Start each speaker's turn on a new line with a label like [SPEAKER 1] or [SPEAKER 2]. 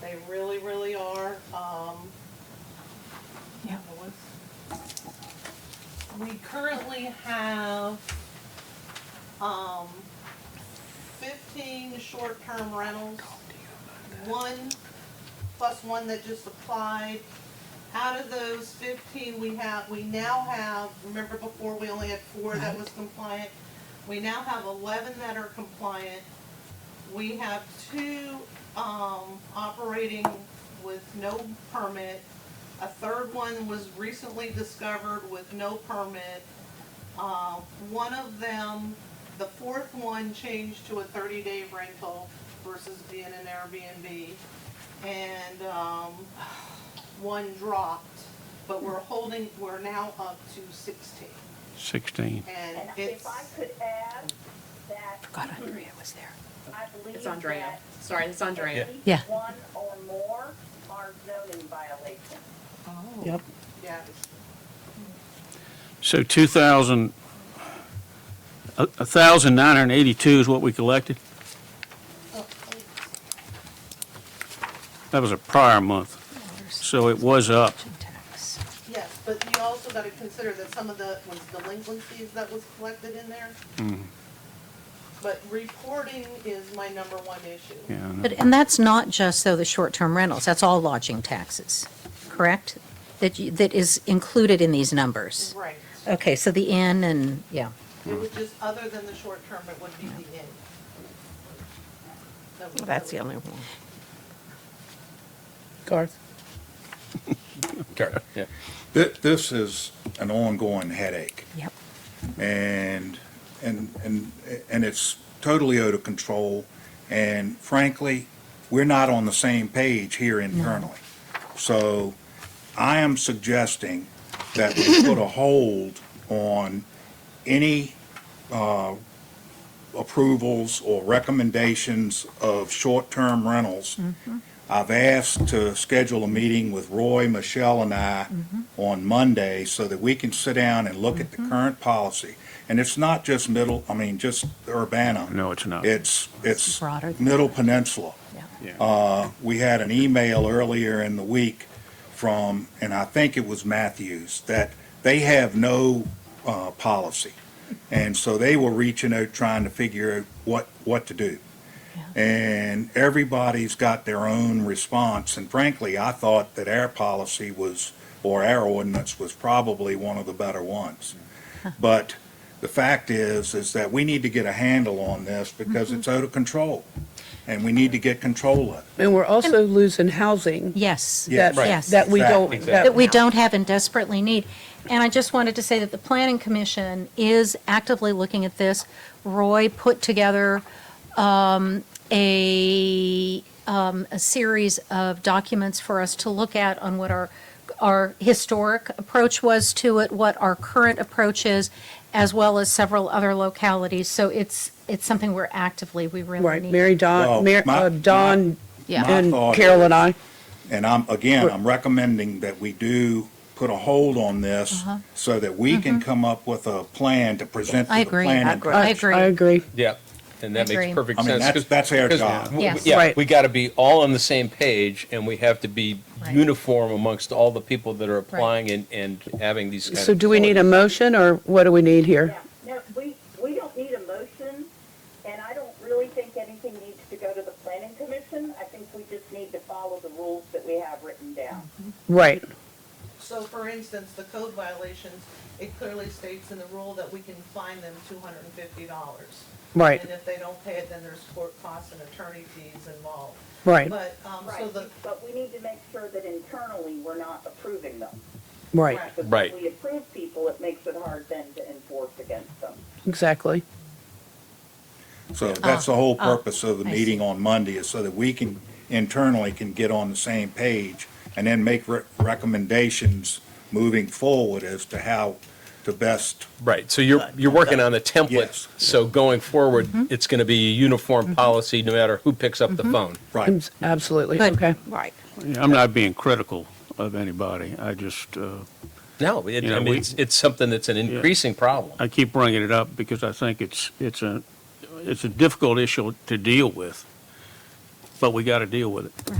[SPEAKER 1] They really, really are. Um,
[SPEAKER 2] Yeah.
[SPEAKER 1] we currently have, um, fifteen short-term rentals. One, plus one that just applied. Out of those fifteen, we have, we now have, remember before, we only had four that was compliant? We now have eleven that are compliant. We have two, um, operating with no permit. A third one was recently discovered with no permit. Uh, one of them, the fourth one changed to a thirty-day rental versus being an Airbnb. And, um, one dropped, but we're holding, we're now up to sixteen.
[SPEAKER 3] 16.
[SPEAKER 1] And
[SPEAKER 4] And
[SPEAKER 1] it's,
[SPEAKER 4] if I could add that
[SPEAKER 2] God, Andrea was there.
[SPEAKER 4] I believe
[SPEAKER 5] It's Andrea.
[SPEAKER 4] that
[SPEAKER 5] Sorry, it's Andrea.
[SPEAKER 4] at least
[SPEAKER 2] Yeah.
[SPEAKER 4] one or more are zoning violations.
[SPEAKER 2] Yep.
[SPEAKER 1] yeah,
[SPEAKER 3] So 2,000, a- 1,982 is what we collected? That was a prior month, so it was up.
[SPEAKER 1] yes, but you also gotta consider that some of the, was delinquencies that was collected in there.
[SPEAKER 6] Mm-hmm.
[SPEAKER 1] But reporting is my number one issue.
[SPEAKER 3] Yeah, I know.
[SPEAKER 2] But, and that's not just though the short-term rentals, that's all lodging taxes, correct? That, you- that is included in these numbers?
[SPEAKER 1] Right.
[SPEAKER 2] Okay, so the inn and, yeah,
[SPEAKER 1] It would just, other than the short term, it would be the end. That would-
[SPEAKER 7] That's the only one.
[SPEAKER 6] Garth?
[SPEAKER 8] Thi- This is an ongoing headache,
[SPEAKER 2] yep.
[SPEAKER 8] and, and, and, and it's totally out of control, and frankly, we're not on the same page here internally. So I am suggesting that we put a hold on any uh, approvals or recommendations of short-term rentals. I've asked to schedule a meeting with Roy, Michelle, and I on Monday so that we can sit down and look at the current policy. And it's not just middle, I mean, just Urbana.
[SPEAKER 3] No, it's not.
[SPEAKER 8] It's, it's
[SPEAKER 2] Broader than
[SPEAKER 8] Middle Peninsula.
[SPEAKER 3] Yeah.
[SPEAKER 8] Uh, we had an email earlier in the week from, and I think it was Matthews, that they have no, uh, policy. And so they were reaching out, trying to figure out what, what to do. And everybody's got their own response, and frankly, I thought that our policy was, or our ordinance was probably one of the better ones. But the fact is, is that we need to get a handle on this because it's out of control, and we need to get control of it.
[SPEAKER 6] And we're also losing housing
[SPEAKER 2] Yes.
[SPEAKER 8] Yes.
[SPEAKER 6] that,
[SPEAKER 8] Right.
[SPEAKER 2] Yes.
[SPEAKER 6] that we don't.
[SPEAKER 8] Exactly.
[SPEAKER 2] that we don't have and desperately need. And I just wanted to say that the Planning Commission is actively looking at this. Roy put together um, a, um, a series of documents for us to look at on what our, our historic approach was to it, what our current approach is, as well as several other localities. So it's, it's something we're actively, we really
[SPEAKER 6] Right,
[SPEAKER 2] need.
[SPEAKER 6] Mary
[SPEAKER 8] Well,
[SPEAKER 6] Don, Mar-
[SPEAKER 8] Oh, my-
[SPEAKER 6] uh, Don
[SPEAKER 2] Yeah.
[SPEAKER 8] My
[SPEAKER 6] and
[SPEAKER 8] thought
[SPEAKER 6] Carol and I.
[SPEAKER 8] And I'm, again, I'm recommending that we do put a hold on this
[SPEAKER 2] Uh-huh.
[SPEAKER 8] so that we can come up with a plan to present to
[SPEAKER 2] Mm-hmm. I
[SPEAKER 8] the
[SPEAKER 2] agree.
[SPEAKER 8] planning.
[SPEAKER 2] I
[SPEAKER 6] I
[SPEAKER 2] agree.
[SPEAKER 6] agree.
[SPEAKER 9] Yeah, and that
[SPEAKER 2] Agree.
[SPEAKER 9] makes perfect
[SPEAKER 8] I
[SPEAKER 9] sense.
[SPEAKER 8] mean, that's,
[SPEAKER 9] 'cause-
[SPEAKER 8] that's our
[SPEAKER 9] 'cause
[SPEAKER 8] job.
[SPEAKER 9] w- w-
[SPEAKER 2] Yes.
[SPEAKER 9] Yeah,
[SPEAKER 6] Right.
[SPEAKER 9] we got to be all on the same page, and we have to be
[SPEAKER 2] Right.
[SPEAKER 9] uniform amongst all the people that are applying and, and having these kinds of.
[SPEAKER 6] So do we need a
[SPEAKER 9] facilities.
[SPEAKER 6] motion or what do we need here?
[SPEAKER 4] Yeah, no, we, we don't need a motion, and I don't really think anything needs to go to the planning commission. I think we just need to follow the rules that we have written down.
[SPEAKER 6] Right,
[SPEAKER 1] So for instance, the code violations, it clearly states in the rule that we can fine them two hundred and fifty dollars.
[SPEAKER 6] Right.
[SPEAKER 1] And if they don't pay it, then there's court costs and attorney fees involved.
[SPEAKER 6] right,
[SPEAKER 1] But, um, so
[SPEAKER 4] Right,
[SPEAKER 1] the,
[SPEAKER 4] but we need to make sure that internally, we're not approving them.
[SPEAKER 6] right,
[SPEAKER 1] Right.
[SPEAKER 4] Because
[SPEAKER 9] Right.
[SPEAKER 4] if we approve people, it makes it hard then to enforce against them.
[SPEAKER 6] exactly.
[SPEAKER 8] So that's the whole purpose of the
[SPEAKER 2] Oh. I
[SPEAKER 8] meeting on Monday is so that we can internally can get on the same page and then make re- recommendations moving forward as to how to best,
[SPEAKER 9] Right, so you're, you're working on the
[SPEAKER 8] Yes.
[SPEAKER 9] template, so going forward, it's going to be a uniform policy, no matter who picks up the phone.
[SPEAKER 8] right.
[SPEAKER 6] Abs- Absolutely,
[SPEAKER 2] Good.
[SPEAKER 6] okay.
[SPEAKER 7] Right.
[SPEAKER 3] Yeah, I'm not being critical of anybody. I just, uh,
[SPEAKER 9] No, it-
[SPEAKER 3] You know,
[SPEAKER 9] I mean,
[SPEAKER 3] we-
[SPEAKER 9] it's, it's something that's an increasing problem.
[SPEAKER 3] I keep bringing it up because I think it's, it's a, it's a difficult issue to deal with, but we got to deal with it.